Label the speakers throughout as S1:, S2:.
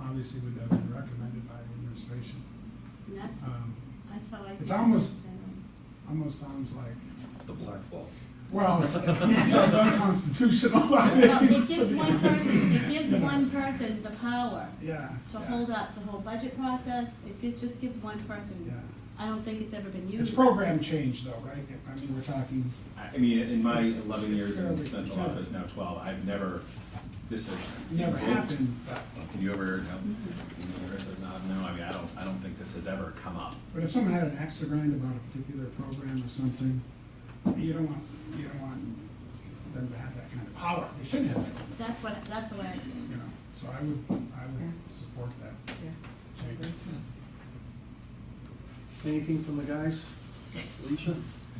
S1: obviously would have been recommended by the administration.
S2: And that's,
S1: Um,
S2: that's how I.
S1: it's
S2: can
S1: almost-
S2: understand
S1: Almost sounds like,
S3: The blackball.
S1: well, it sounds unconstitutional. I mean,
S2: Well, it gives one person, it
S1: you
S2: gives
S1: know.
S2: one person the power
S1: Yeah.
S2: to
S1: yeah,
S2: hold up the whole budget process. It gi- just gives one person.
S1: Yeah.
S2: I don't think it's ever been used.
S1: It's program change though, right? I mean, we're talking,
S4: I I mean, in my
S1: It's-
S4: eleven
S1: it's
S4: years in
S1: fairly
S4: central
S1: conservative.
S4: office, now twelve, I've never, this has.
S1: never
S4: evoked-
S1: happened, Mm-hmm. but,
S4: Can you ever, no, can you ever say, no, no, I mean, I don't, I don't think this has ever come up.
S1: but if someone had an axe to grind about a particular program or something, you don't want, you don't want them to have that kind of power. They shouldn't have, that,
S2: That's what, that's the way I
S1: you
S2: think.
S1: know, so I would, I would support that change.
S5: Anything from the guys? Alicia?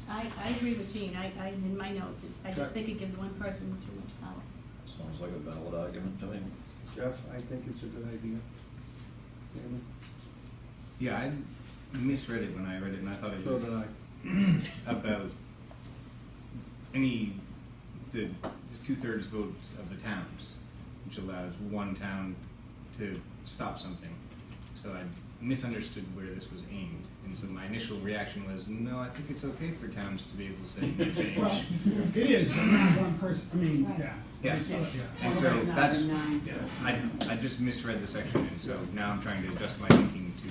S2: I, I agree with Jean. I, I, in my notes, it- I just
S5: Okay.
S2: think it gives one person too much power.
S3: Sounds like a valid argument to me.
S5: Jeff, I think it's a good idea. Damon?
S6: Yeah, I misread it when I read it, and I thought it
S5: So
S6: was
S5: did I.
S6: about any the two-thirds votes of the towns, which allows one town to stop something. So I misunderstood where this was aimed, and so my initial reaction was, no, I think it's okay for towns to be able to say no
S1: Well,
S6: change.
S1: it is, but not one person, I mean, yeah.
S6: Yeah.
S1: So,
S6: And
S1: yeah.
S6: so
S7: Otherwise not
S6: that's,
S7: been nice.
S6: yeah, I, I just misread the section, and so now I'm trying to adjust my thinking to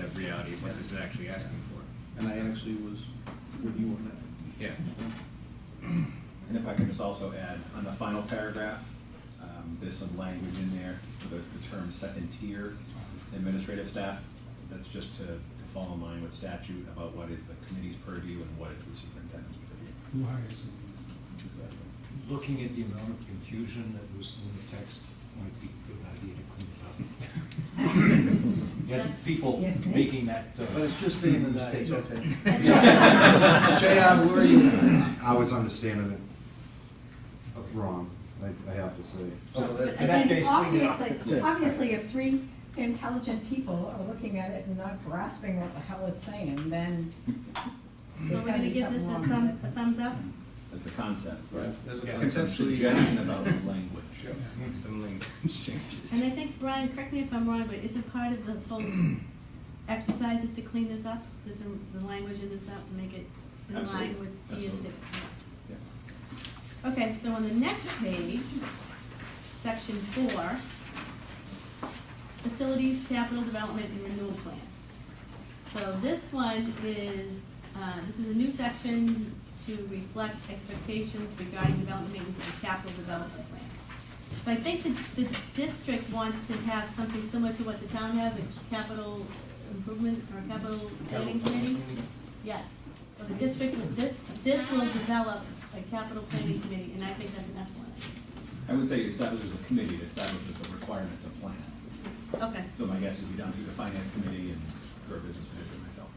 S6: the reality of what this is actually asking for.
S5: And I actually was with you on that.
S6: Yeah.
S4: And if I could just also add, on the final paragraph, um, there's some language in there for the, the term second tier administrative staff. That's just to, to fall in line with statute about what is the committee's purview and what is the superintendent's purview.
S1: Who hires them?
S8: Looking at the amount of confusion that was in the text, might be a good idea to clean it up. Yeah, people
S7: Yeah.
S8: making that. uh,
S5: But it's just Damon and I,
S8: mistake.
S5: it's okay. JR, where are you?
S9: I was understanding it wrong, I, I have to say.
S5: Oh, that-
S8: In that
S10: And
S8: case, clean it up.
S10: obviously, obviously, if three intelligent people are looking at it and not grasping what the hell it's saying, then
S2: So
S10: there's
S2: we're
S10: gotta
S2: gonna
S10: be
S2: give this
S10: something
S2: a
S10: wrong.
S2: thumb, a thumbs up?
S4: That's the concept, right?
S5: Right, there's a
S6: Yeah,
S5: concept.
S6: conceptually-
S4: Suggestion about language.
S6: Make some language changes.
S2: And I think, Brian, correct me if I'm wrong, but isn't part of this whole exercise is to clean this up? Does the, the language in this up and make it in line
S4: Absolutely.
S2: with DSA?
S4: Absolutely. Yeah.
S2: Okay, so on the next page, section four, facilities, capital development, and renewal plan. So this one is, uh, this is a new section to reflect expectations regarding development maintenance and capital development plan. But I think the, the district wants to have something similar to what the town has, a capital improvement or capital planning committee. Yes, so the district, will- this, this will develop a capital planning committee, and I think that's an excellent.
S4: I would say establishes a committee that establishes the requirement to plan.
S2: idea. Okay,
S4: So my guess is be down to the finance committee and for a business manager myself.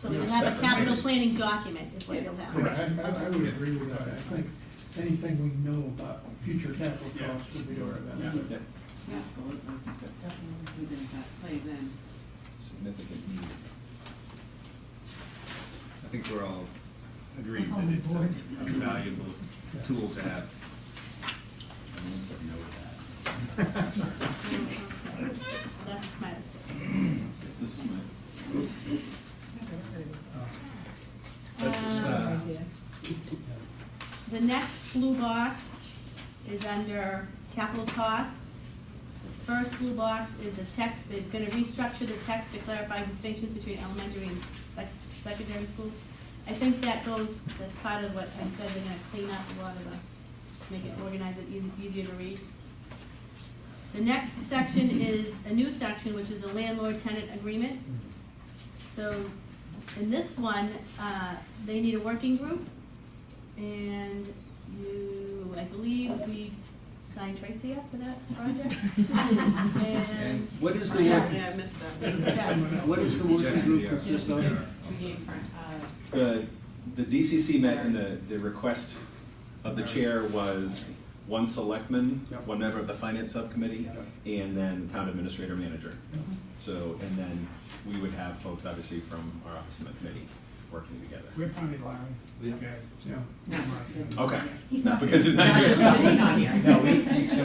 S2: so you'll have a
S4: Separate,
S2: capital
S4: yes.
S2: planning document is what you'll have.
S1: Correct. I, I would agree with that, I think anything we know about future capital
S4: Yeah.
S1: costs would be our best.
S4: Yeah.
S7: Yeah.
S4: Absolutely.
S7: Definitely, we think that plays in.
S4: Significant need.
S6: I think we're all agreed that it's a a valuable tool to have.
S4: Everyone said no to that.
S2: That's my,
S4: This is my,
S1: Uh,
S5: That's just,
S2: Um,
S5: uh,
S2: The next blue box is under capital costs. First blue box is a text, they're gonna restructure the text to clarify distinctions between elementary and sec- secondary schools. I think that goes, that's part of what I said, they're gonna clean up a lot of the, make it organize it eas- easier to read. The next section is a new section, which is a landlord-tenant agreement. So in this one, uh, they need a working group, and you, I believe we signed Tracy up for that project. And, Oh,
S5: What is the
S7: Yeah, yeah,
S5: working,
S7: I missed that.
S2: yeah,
S5: what is the
S6: Jeff
S5: working
S6: and
S5: group
S6: JR
S5: consist
S6: also.
S5: of?
S7: We need, uh,
S4: the, the DCC met and the, the request of the chair was one selectman,
S5: Yep.
S4: one member of the finance subcommittee, and then the town administrator manager. So, and then we would have folks obviously from our office and the committee working together.
S1: We appointed Larry.
S8: Yeah.
S1: Okay, so.
S7: no, he doesn't-
S4: Okay,
S7: He's
S4: not
S7: not
S4: because it's not
S7: No,
S4: here.
S7: he's not- he's not here.
S8: No, we, we accept